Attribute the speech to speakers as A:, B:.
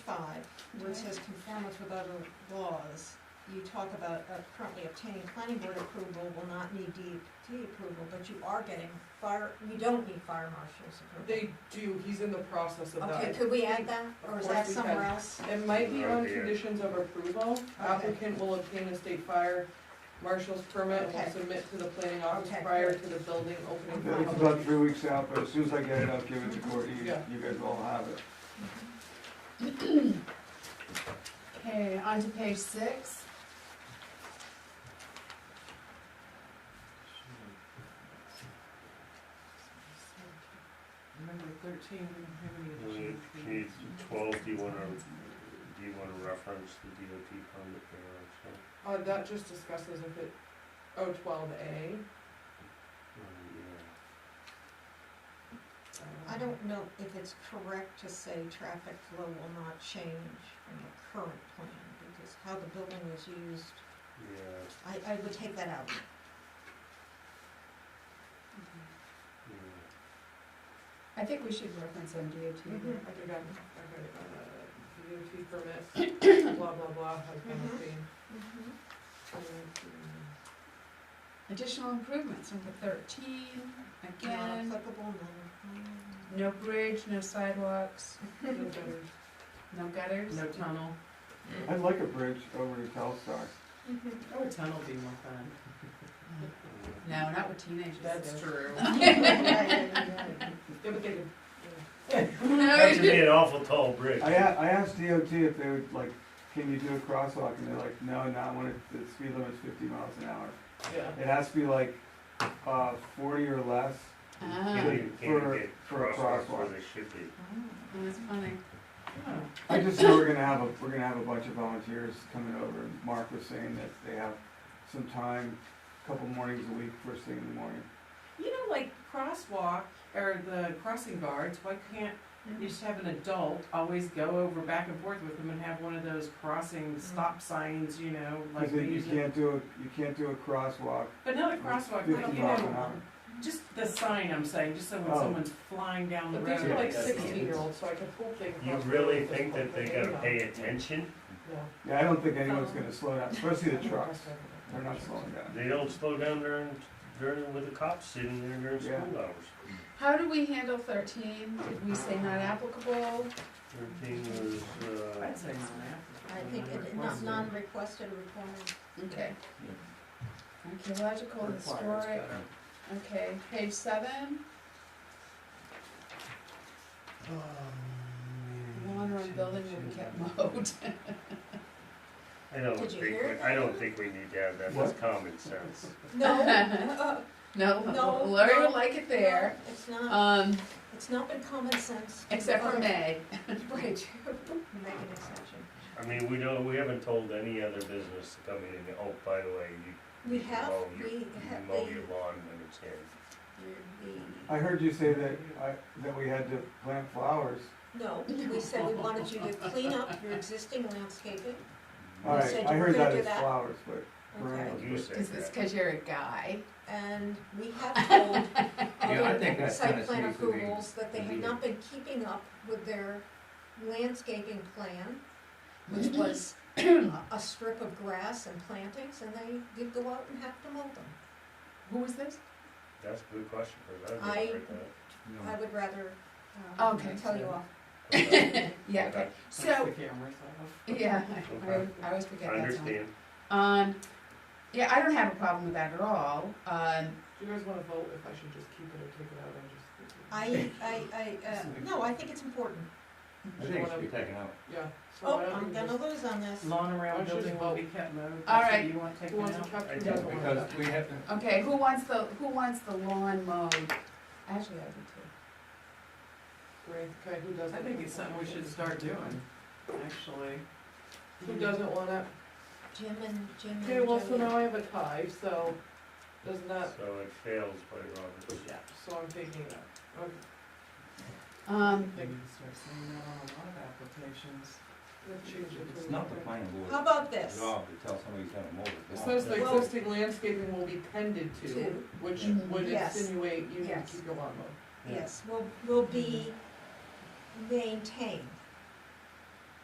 A: five, where it says conformance with other laws, you talk about uh, currently obtaining planning board approval will not need DEP approval, but you are getting fire, you don't need fire marshal's approval.
B: They do, he's in the process of
A: Okay,
B: that.
A: could we add that, or is
B: Of course
A: that
B: we can.
A: somewhere else?
B: It might be on
C: Right here.
B: conditions of approval, applicant will obtain a state fire marshal's permit and
A: Okay.
B: will submit to the planning office
A: Okay.
B: prior to the building opening
A: Okay.
B: for
D: It's
B: public.
D: about three weeks out, but as soon as I get it, I'll give it to Courtney, you
B: Yeah.
D: you guys all have it.
E: Okay, on to page six.
B: Remember thirteen, we
C: Page
B: didn't
C: twelve, do you wanna, do you wanna reference the DOT permit there
B: Uh, that just discusses if it, oh, twelve A.
C: also?
A: I
B: Uh,
A: don't know if it's correct to say traffic flow will not change from the current plan, because how the building is used,
C: Yeah,
A: I, I would take that out.
C: yeah,
E: I think we should reference on DOT.
F: Mm-hmm.
B: Mhm, I think I'm, okay, uh, DOT permit, blah, blah, blah, has been
A: Mhm.
B: obtained.
E: Additional improvements, number thirteen, again,
A: Non-applicable, non
E: no bridge, no sidewalks,
B: No gutters.
E: no gutters.
F: No tunnel.
D: I'd like a bridge over to Telstock.
F: Oh, a tunnel would be more fun.
E: No, not with teenagers. though.
F: true.
B: Yeah, but they did.
C: That
E: No,
C: could be an awful tall bridge.
D: I, a- I asked DOT if they would, like, can you do a crosswalk, and they're like, no, not when it- the speed limit's fifty miles an hour.
B: Yeah.
D: It has to be like, uh, forty or less.
C: You
E: ah,
C: know, you can't
D: For-
C: get
D: for a
C: crosswalks where
D: crosswalk.
C: they should be.
E: that's Oh, funny.
D: I just know we're gonna have a, we're gonna have a bunch of volunteers coming over, and Mark was saying that they have some time, a couple mornings a week, first thing in the morning.
F: You know, like crosswalk or the crossing guards, why can't you just have an adult always go over back and forth with them and have one of those
E: Mm-hmm.
F: crossing stop signs, you know, like
D: Cause
F: we
D: you you
F: use it.
D: can't do, a you can't do a crosswalk
F: But not a crosswalk, like,
D: fifty
F: you
D: miles an
F: know,
D: hour.
F: just the sign I'm saying, just so when
D: Oh.
F: someone's flying down the
B: But
F: road.
B: these are like
C: Yeah.
B: sixteen-year-olds, so I can pull things.
C: You
B: off
C: really
B: their-
C: think that they gotta pay attention?
B: Yeah.
D: Yeah, I don't think anyone's gonna slow down, especially the trucks, they're not slowing down.
C: They don't slow down during, during, with the cops sitting there during
D: Yeah.
C: school hours.
E: How do we handle thirteen? Did we say not applicable?
C: Thirteen was, uh,
F: I'd say not
A: I think it, not, non-requested requirement.
E: Okay. Archaeological,
F: Requires
E: historic,
F: better.
E: okay, page seven,
D: Um,
E: lawn around building will be kept mowed.
C: I don't
A: Did
C: think,
A: you
C: we-
A: hear it?
C: I don't think we need to have that, that's common sense.
A: No,
E: No,
A: No,
E: Larry
A: no,
E: would like it there,
A: it's not,
E: um,
A: it's not been common sense.
E: except for May.
A: Wait, make an exception.
C: I mean, we don't, we haven't told any other business to come in and, oh, by the way, you
A: We have,
C: mow your-
A: we
C: you
A: have,
C: mow
A: we,
C: your lawn when it's in.
A: we,
D: I heard you say that, I, that we had to plant flowers.
A: no, we said we wanted you to clean up your existing landscaping.
D: All
A: said
D: right,
A: you
D: I
A: were
D: heard
A: gonna
D: that
A: do
D: as
A: that.
D: flowers, but
A: Okay,
D: perennials.
C: You said
E: Cause it's
C: that.
E: cause you're a guy.
A: and we have told
G: Yeah, I think
A: other
G: that's kinda
A: site plan
G: sneaky.
A: approvals that they have not been keeping up with their landscaping plan, which was a a strip of grass and plantings, and they did go out and have to mow them.
E: Who was this?
C: That's a good question, because I
A: I-
C: haven't heard
G: Oh.
A: I would rather,
B: Uh,
A: um,
E: Okay.
A: tell you off.
C: that.
E: Yeah, okay, so,
F: The cameras off.
E: yeah, I- I, always- I always
C: I
E: forget that time.
C: understand.
E: Um, yeah, I don't have a problem with that at all, um,
B: Do you guys wanna vote if I should just keep it or take it out, I just.
A: I, I, I, uh, no, I think it's important.
G: I think it should be taken out.
B: Yeah. so
A: Oh,
B: why don't
A: I'm
B: we
A: gonna lose
B: just-
A: on this.
F: Lawn around
B: Don't you
F: building
B: just
F: will
B: vote?
F: be kept mowed.
E: All
F: That's what
E: right.
F: You want taken
B: Who wants
F: out?
B: to cut,
C: I
B: who
C: did,
B: doesn't want to
G: Because
B: cut?
G: we have to,
E: okay, who wants the, who wants the lawn mowed? Actually, I do too.
B: Great, okay, who doesn't?
F: I think it's something we should start doing, actually.
B: Who doesn't want it?
A: Jim and, Jim and
B: Okay, well, so
A: Jody.
B: now I have a tie, so doesn't that,
C: So it fails by Robert's.
B: yeah, so I'm taking it out. Okay.
E: Um,
F: They can start saying that on a lot of applications.
B: Let's change it to-
G: it's not the planning
A: How
G: board's
A: about this?
G: job to tell somebody he's gonna mow
B: It
G: the lawn.
B: says the
A: Well-
B: existing landscaping will be tended to,
A: Two,
B: which
E: Mhm.
B: would
A: Yes.
B: insinuate you need to
A: Yes.
B: keep your lawn mowed.
A: yes, will, will be maintained.